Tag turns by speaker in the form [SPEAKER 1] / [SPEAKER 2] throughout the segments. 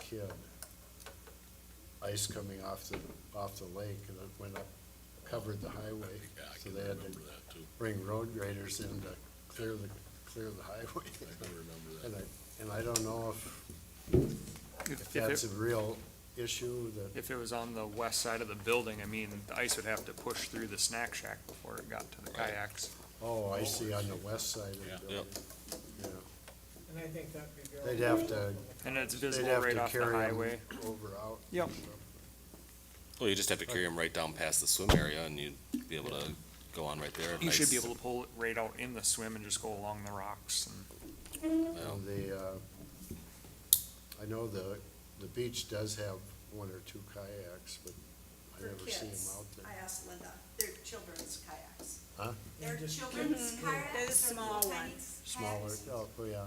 [SPEAKER 1] kid. Ice coming off the, off the lake and it went up, covered the highway.
[SPEAKER 2] Yeah, I
[SPEAKER 1] So
[SPEAKER 2] can
[SPEAKER 1] they had to
[SPEAKER 2] remember that too.
[SPEAKER 1] bring road graders in to clear the, clear the highway.
[SPEAKER 2] I can remember
[SPEAKER 1] And
[SPEAKER 2] that.
[SPEAKER 1] I, and I don't know if, if
[SPEAKER 3] If
[SPEAKER 1] that's a
[SPEAKER 3] it,
[SPEAKER 1] real issue that,
[SPEAKER 3] if it was on the west side of the building, I mean, the ice would have to push through the snack shack before it got to the
[SPEAKER 2] Right.
[SPEAKER 3] kayaks.
[SPEAKER 1] oh, I see on the west side
[SPEAKER 2] Yeah.
[SPEAKER 1] of the building. Yeah,
[SPEAKER 4] And I think that'd be very.
[SPEAKER 1] They'd have to,
[SPEAKER 3] And it's
[SPEAKER 1] they'd
[SPEAKER 3] visible
[SPEAKER 1] have
[SPEAKER 3] right
[SPEAKER 1] to
[SPEAKER 3] off the
[SPEAKER 1] carry 'em
[SPEAKER 3] highway.
[SPEAKER 1] over out.
[SPEAKER 3] Yep.
[SPEAKER 5] Well, you just have to carry them right down past the swim area and you'd be able to go on right there.
[SPEAKER 3] You should be
[SPEAKER 5] Nice.
[SPEAKER 3] able to pull it right out in the swim and just go along the rocks and
[SPEAKER 5] Well,
[SPEAKER 1] And the, uh, I know the, the beach does have one or two kayaks, but I
[SPEAKER 6] for
[SPEAKER 1] never see them
[SPEAKER 6] kids.
[SPEAKER 1] out
[SPEAKER 6] I
[SPEAKER 1] there.
[SPEAKER 6] asked Linda, they're children's kayaks.
[SPEAKER 1] Huh?
[SPEAKER 6] They're
[SPEAKER 4] just
[SPEAKER 6] children's kayaks.
[SPEAKER 7] They're the
[SPEAKER 6] they're
[SPEAKER 7] small
[SPEAKER 6] little tiny
[SPEAKER 7] ones.
[SPEAKER 1] Smaller,
[SPEAKER 6] kayaks.
[SPEAKER 1] oh, yeah, yeah,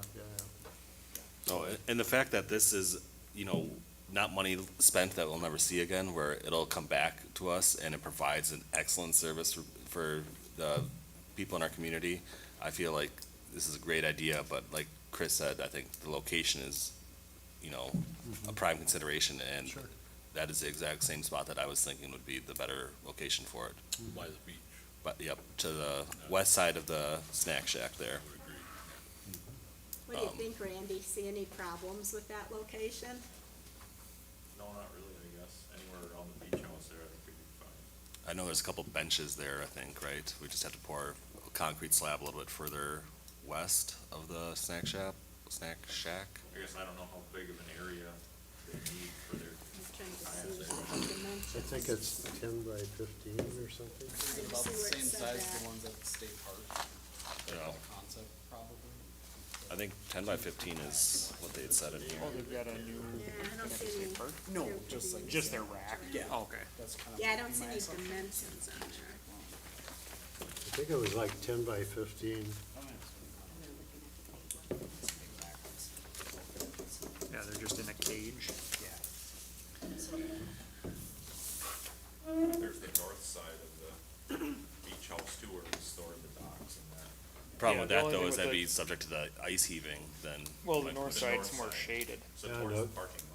[SPEAKER 1] yeah.
[SPEAKER 5] No, a- Oh, and the fact that this is, you know, not money spent that we'll never see again, where it'll come back to us and it provides an excellent service for, for the people in our community. I feel like this is a great idea, but like Chris said, I think the location is, you know, a prime consideration and
[SPEAKER 1] Sure.
[SPEAKER 5] that is the exact same spot that I was thinking would be the better location for it.
[SPEAKER 2] By the beach,
[SPEAKER 5] But, yep, to the west side of the snack shack there.
[SPEAKER 2] I would agree.
[SPEAKER 7] What do you
[SPEAKER 5] Um,
[SPEAKER 7] think, Randy? See any problems with that location?
[SPEAKER 8] No, not really, I guess. Anywhere around the beach house there, I think we'd be fine.
[SPEAKER 5] I know there's a couple benches there, I think, right? We just have to pour a concrete slab a little bit further west of the snack shop, snack shack.
[SPEAKER 8] I guess I don't know how big of an area they need for their
[SPEAKER 7] I'm trying to see
[SPEAKER 8] kayaks. there.
[SPEAKER 7] the dimensions.
[SPEAKER 1] I think it's ten by fifteen or something.
[SPEAKER 7] Did you
[SPEAKER 9] About
[SPEAKER 7] see
[SPEAKER 9] the
[SPEAKER 7] where it
[SPEAKER 9] same
[SPEAKER 7] said
[SPEAKER 9] size as
[SPEAKER 7] that?
[SPEAKER 9] the ones at the state park,
[SPEAKER 5] You know,
[SPEAKER 9] concept probably.
[SPEAKER 5] I think ten by fifteen is what they had said in here.
[SPEAKER 3] Oh, they've got a new,
[SPEAKER 7] Yeah, I don't see any.
[SPEAKER 9] No,
[SPEAKER 7] there
[SPEAKER 9] just
[SPEAKER 7] could
[SPEAKER 9] like-
[SPEAKER 7] be-
[SPEAKER 3] just their rack.
[SPEAKER 9] Yeah.
[SPEAKER 3] Oh, Okay.
[SPEAKER 9] That's kind of.
[SPEAKER 7] Yeah, I
[SPEAKER 9] my
[SPEAKER 7] don't see any
[SPEAKER 9] assumption.
[SPEAKER 7] dimensions on there.
[SPEAKER 1] I think it was like ten by fifteen.
[SPEAKER 3] Yeah, they're just in a cage.
[SPEAKER 8] There's the north side of the beach house too, where we store the docks and that.
[SPEAKER 5] Problem
[SPEAKER 3] Yeah,
[SPEAKER 5] with
[SPEAKER 3] the
[SPEAKER 5] that
[SPEAKER 3] only
[SPEAKER 5] though
[SPEAKER 3] thing
[SPEAKER 5] is
[SPEAKER 3] with
[SPEAKER 5] that'd
[SPEAKER 3] the-
[SPEAKER 5] be subject to the ice heaving then.
[SPEAKER 3] Well, the
[SPEAKER 5] like,
[SPEAKER 3] north
[SPEAKER 8] the
[SPEAKER 3] side's
[SPEAKER 8] north
[SPEAKER 3] more
[SPEAKER 8] side.
[SPEAKER 3] shaded.
[SPEAKER 8] So
[SPEAKER 1] Yeah,
[SPEAKER 8] towards
[SPEAKER 1] no.
[SPEAKER 8] the parking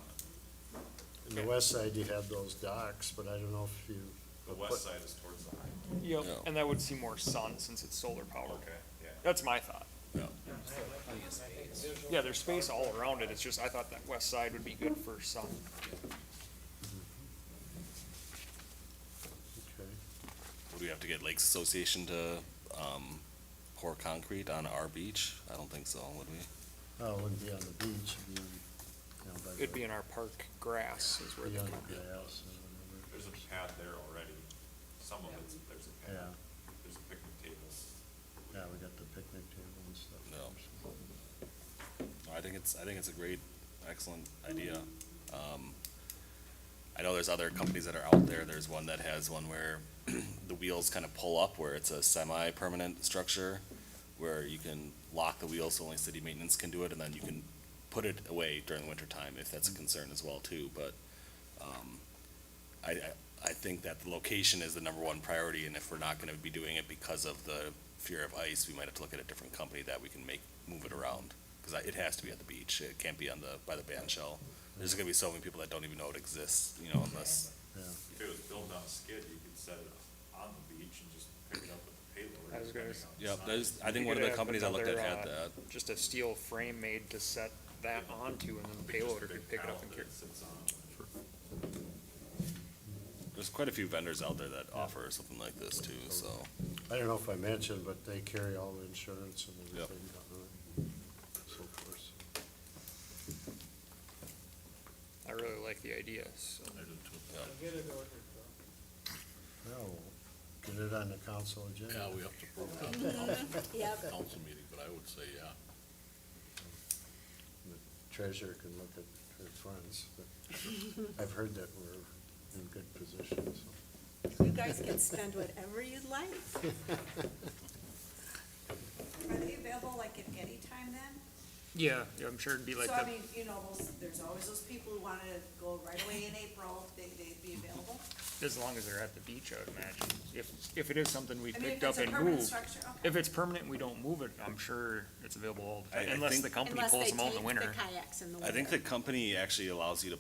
[SPEAKER 8] lot.
[SPEAKER 1] In the west side, you had those docks, but I don't know if you.
[SPEAKER 8] The west side is towards the highway.
[SPEAKER 3] Yep,
[SPEAKER 5] Yeah.
[SPEAKER 3] and that would see more sun since it's solar powered.
[SPEAKER 8] Yeah.
[SPEAKER 3] That's my thought.
[SPEAKER 9] Plenty of space.
[SPEAKER 3] Yeah, there's space all around it. It's just, I thought that west side would be good for sun.
[SPEAKER 1] Okay.
[SPEAKER 5] Would we have to get Lakes Association to, um, pour concrete on our beach? I don't think so, would we?
[SPEAKER 1] Oh, it wouldn't be on the beach, it'd be, on, you know, by the.
[SPEAKER 3] It'd be in our park grass is where
[SPEAKER 1] be
[SPEAKER 3] they
[SPEAKER 1] on
[SPEAKER 3] come.
[SPEAKER 1] the grass or
[SPEAKER 8] There's a pad there already. Some of it's, there's a
[SPEAKER 1] Yeah.
[SPEAKER 8] pad. There's a picnic table.
[SPEAKER 1] whatever. Yeah, we got the picnic table and stuff.
[SPEAKER 5] No. No, I think it's, I think it's a great, excellent idea. Um, I know there's other companies that are out there, there's one that has one where the wheels kind of pull up, where it's a semi-permanent structure, where you can lock the wheels, so only city maintenance can do it, and then you can put it away during the winter time, if that's a concern as well too, but, um, I, I, I think that the location is the number one priority, and if we're not gonna be doing it because of the fear of ice, we might have to look at a different company that we can make, move it around. Cause I, it has to be at the beach, it can't be on the, by the band shell. There's gonna be so many people that don't even know it exists, you know, unless,
[SPEAKER 1] Yeah,
[SPEAKER 8] If it was built on a skid, you could set it on the beach and just pick it up with the payload.
[SPEAKER 3] I was gonna
[SPEAKER 8] depending
[SPEAKER 3] s-
[SPEAKER 8] on the
[SPEAKER 5] yeah,
[SPEAKER 8] size.
[SPEAKER 5] there's, I think
[SPEAKER 3] You
[SPEAKER 5] one
[SPEAKER 3] could
[SPEAKER 5] of the
[SPEAKER 3] have
[SPEAKER 5] companies I looked at
[SPEAKER 3] another,
[SPEAKER 5] had
[SPEAKER 3] uh,
[SPEAKER 5] that.
[SPEAKER 3] Just a steel frame made to set that onto and then the
[SPEAKER 8] Just a
[SPEAKER 3] payloader
[SPEAKER 8] big
[SPEAKER 3] could pick it up
[SPEAKER 8] pallet
[SPEAKER 3] and
[SPEAKER 8] that
[SPEAKER 3] carry.
[SPEAKER 8] it sits on.
[SPEAKER 5] There's quite a few vendors out there that offer something like this too, so.
[SPEAKER 1] I don't know if I mentioned, but they carry all the insurance and
[SPEAKER 5] Yep.
[SPEAKER 1] everything, uh, so forth.
[SPEAKER 3] I really like the idea, so.
[SPEAKER 4] Get it ordered, though.
[SPEAKER 1] No, get it on the council agenda.
[SPEAKER 2] Yeah, we have to prove it on the council-
[SPEAKER 7] Yep.
[SPEAKER 2] council meeting, but I would say, yeah.
[SPEAKER 1] treasurer can look at her funds, but I've heard that we're in good position, so.
[SPEAKER 7] You guys can spend whatever you'd like.
[SPEAKER 6] Are they available like at any time then?
[SPEAKER 3] Yeah, yeah, I'm sure it'd be like
[SPEAKER 6] So I
[SPEAKER 3] the,
[SPEAKER 6] mean, you know, those- there's always those people who wanna go right away in April, they, they'd be available.
[SPEAKER 3] as long as they're at the beach, I would imagine. If, if it is something we
[SPEAKER 6] I mean,
[SPEAKER 3] picked
[SPEAKER 6] if
[SPEAKER 3] up
[SPEAKER 6] it's a
[SPEAKER 3] and
[SPEAKER 6] permanent
[SPEAKER 3] moved.
[SPEAKER 6] structure, okay.
[SPEAKER 3] If it's permanent, and we don't move it, I'm sure it's available all the
[SPEAKER 5] I-
[SPEAKER 3] time,
[SPEAKER 5] I
[SPEAKER 3] unless
[SPEAKER 5] think-
[SPEAKER 3] the company
[SPEAKER 7] Unless they
[SPEAKER 3] pulls them out in the
[SPEAKER 7] take
[SPEAKER 3] winter.
[SPEAKER 7] kayaks in the
[SPEAKER 5] I think
[SPEAKER 7] winter.
[SPEAKER 5] the company actually allows you to